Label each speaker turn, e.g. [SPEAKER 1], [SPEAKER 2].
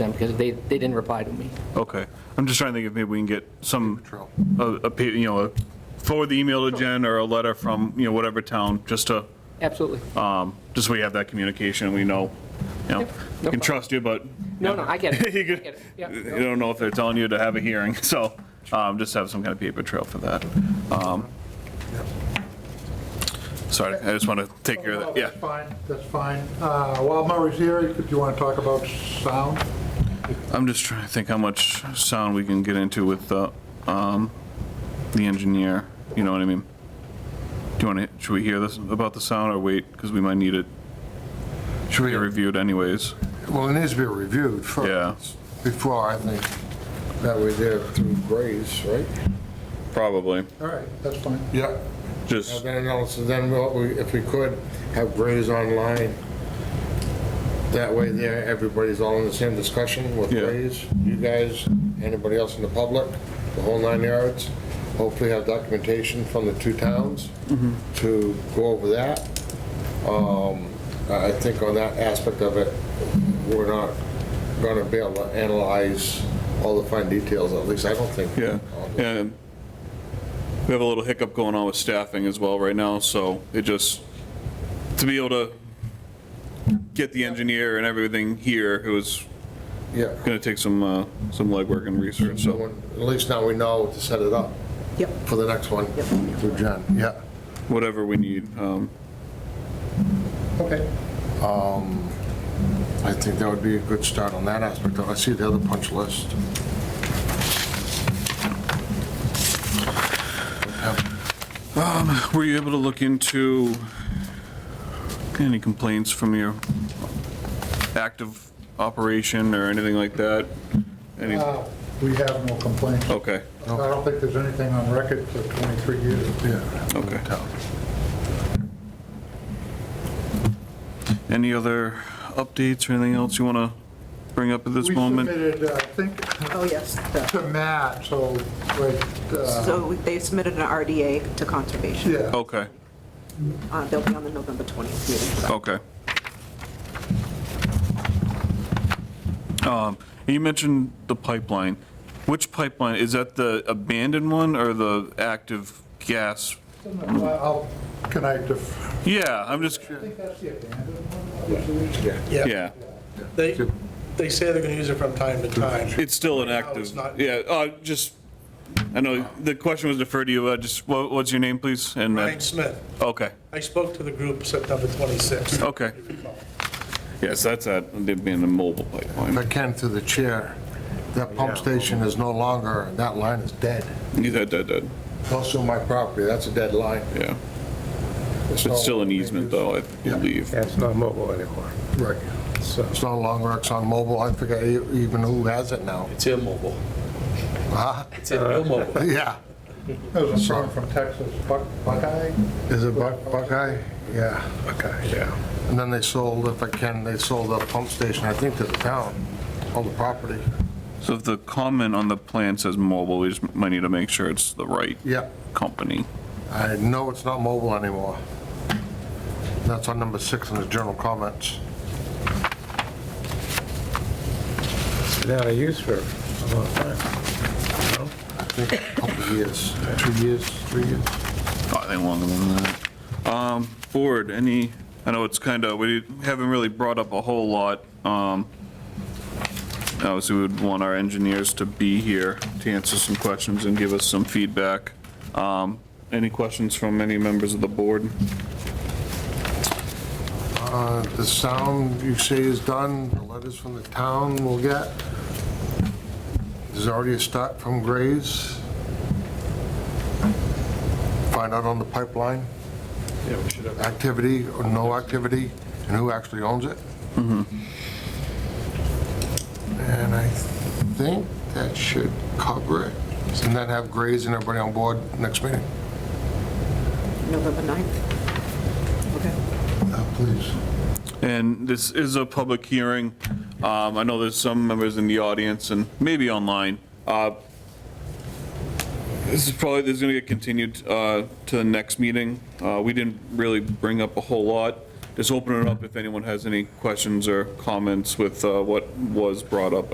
[SPEAKER 1] them because they, they didn't reply to me.
[SPEAKER 2] Okay, I'm just trying to think if maybe we can get some, a, a pa- you know, a- forward the email to Jen or a letter from, you know, whatever town, just to,
[SPEAKER 1] Absolutely.
[SPEAKER 2] um, just so we have that communication, we know, you know,
[SPEAKER 1] no
[SPEAKER 2] can
[SPEAKER 1] problem.
[SPEAKER 2] trust you, but.
[SPEAKER 1] No, no, I get it.
[SPEAKER 2] You
[SPEAKER 1] I
[SPEAKER 2] could-
[SPEAKER 1] get it. Yeah,
[SPEAKER 2] you
[SPEAKER 1] no.
[SPEAKER 2] don't know if they're telling you to have a hearing, so, um, just have some kind of paper trail for that. Um, Sorry, I just want to take care of that, yeah.
[SPEAKER 3] That's fine, that's fine. Uh, While Murray's here, do you want to talk about sound?
[SPEAKER 2] I'm just trying to think how much sound we can get into with the, um, the engineer, you know what I mean? Do you want to, should we hear this, about the sound, or wait, because we might need it
[SPEAKER 4] Should
[SPEAKER 2] be
[SPEAKER 4] we,
[SPEAKER 2] reviewed anyways?
[SPEAKER 4] well, it needs to be reviewed
[SPEAKER 2] Yeah.
[SPEAKER 4] first, before, I think, that we do it through Graves, right?
[SPEAKER 2] Probably,
[SPEAKER 3] All right, that's fine.
[SPEAKER 4] Yeah. And
[SPEAKER 2] just,
[SPEAKER 4] then also, then we'll- we- if we could, have Graves online. That way there, everybody's all in the same discussion with
[SPEAKER 2] Yeah.
[SPEAKER 4] Graves, you guys, anybody else in the public, the whole nine yards. Hopefully have documentation from the two towns to go over that. Um, I I think on that aspect of it, we're not gonna be able to analyze all the fine details, at least I don't think.
[SPEAKER 2] yeah, and we have a little hiccup going on with staffing as well right now, so it just, to be able to get the engineer and everything here, it was
[SPEAKER 4] Yeah.
[SPEAKER 2] gonna take some, uh, some legwork and research, so.
[SPEAKER 4] At least now we know to set it up.
[SPEAKER 5] Yep.
[SPEAKER 4] For the next one. Through Jen, yeah.
[SPEAKER 2] whatever we need. um,
[SPEAKER 4] Okay. Um, I think that would be a good start on that aspect. I see the other punch list.
[SPEAKER 2] Were you able to look into any complaints from your active operation or anything like that? Any,
[SPEAKER 3] Uh, We have no complaints. I
[SPEAKER 2] okay,
[SPEAKER 3] don't think there's anything on record for 23 years.
[SPEAKER 4] Yeah.
[SPEAKER 2] okay. Any other updates or anything else you want to bring up at this
[SPEAKER 3] We
[SPEAKER 2] moment?
[SPEAKER 3] submitted, uh, I think,
[SPEAKER 5] Oh, yes.
[SPEAKER 3] to
[SPEAKER 5] the-
[SPEAKER 3] Matt, so, like, uh,
[SPEAKER 5] So they submitted an RDA to conservation.
[SPEAKER 3] yeah.
[SPEAKER 2] Okay,
[SPEAKER 5] Uh, They'll be on the November 20th meeting for that.
[SPEAKER 2] okay. Um, You mentioned the pipeline. Which pipeline? Is that the abandoned one or the active gas
[SPEAKER 3] I'll- Can I def,
[SPEAKER 2] Yeah, I'm just,
[SPEAKER 3] I think that's the abandoned one.
[SPEAKER 6] Yeah,
[SPEAKER 2] yeah,
[SPEAKER 6] they, they say they're gonna use it from time to time.
[SPEAKER 2] it's still an
[SPEAKER 6] Right now,
[SPEAKER 2] active,
[SPEAKER 6] it's not-
[SPEAKER 2] yeah, uh, just, I know, the question was deferred to you, uh, just, what, what's your name, please? And, uh,
[SPEAKER 6] Ryan Smith,
[SPEAKER 2] okay,
[SPEAKER 6] I spoke to the group September 26th.
[SPEAKER 2] okay. Yes, that's that, they'd be in the mobile pipeline.
[SPEAKER 4] But Ken, through the chair, that pump station is no longer, that line is dead.
[SPEAKER 2] Yeah, that, that, that,
[SPEAKER 4] Close to my property, that's a dead line.
[SPEAKER 2] yeah. It's still an easement, though, I believe.
[SPEAKER 7] Yeah, it's not mobile anymore.
[SPEAKER 4] Right.
[SPEAKER 7] So
[SPEAKER 4] It's no longer ExxonMobil. I forget e- even who has it now.
[SPEAKER 8] It's immobile.
[SPEAKER 4] Huh?
[SPEAKER 8] It's immobile.
[SPEAKER 4] Yeah.
[SPEAKER 3] There's a song from Texas, Buck- Buckeye.
[SPEAKER 4] Is it Buck- Buckeye? Yeah.
[SPEAKER 7] okay, yeah.
[SPEAKER 4] And then they sold, if I can, they sold the pump station, I think, to the town, all the property.
[SPEAKER 2] So if the comment on the plan says mobile, we just might need to make sure it's the right
[SPEAKER 4] Yeah.
[SPEAKER 2] company.
[SPEAKER 4] I know it's not mobile anymore. That's on number six in the general comments.
[SPEAKER 7] It's been out of use for a long time.
[SPEAKER 4] I think a couple of years, two years, three years.
[SPEAKER 2] I think longer than that. Um, Board, any, I know it's kind of, we haven't really brought up a whole lot. um, Obviously, we would want our engineers to be here to answer some questions and give us some feedback. Um, Any questions from any members of the board?
[SPEAKER 4] Uh, The sound you say is done, the letters from the town we'll get. There's already a start from Graves. Find out on the pipeline,
[SPEAKER 6] Yeah, we should have.
[SPEAKER 4] activity or no activity, and who actually owns it.
[SPEAKER 6] Mm-hmm.
[SPEAKER 4] And I think that should cover it. And then have Graves and everybody on board next meeting.
[SPEAKER 5] November 9th. Okay.
[SPEAKER 4] Please.
[SPEAKER 2] And this is a public hearing. Um, I know there's some members in the audience and maybe online. Uh, This is probably, this is going to get continued uh, to the next meeting. Uh, We didn't really bring up a whole lot. Just open it up if anyone has any questions or comments with uh, what was brought up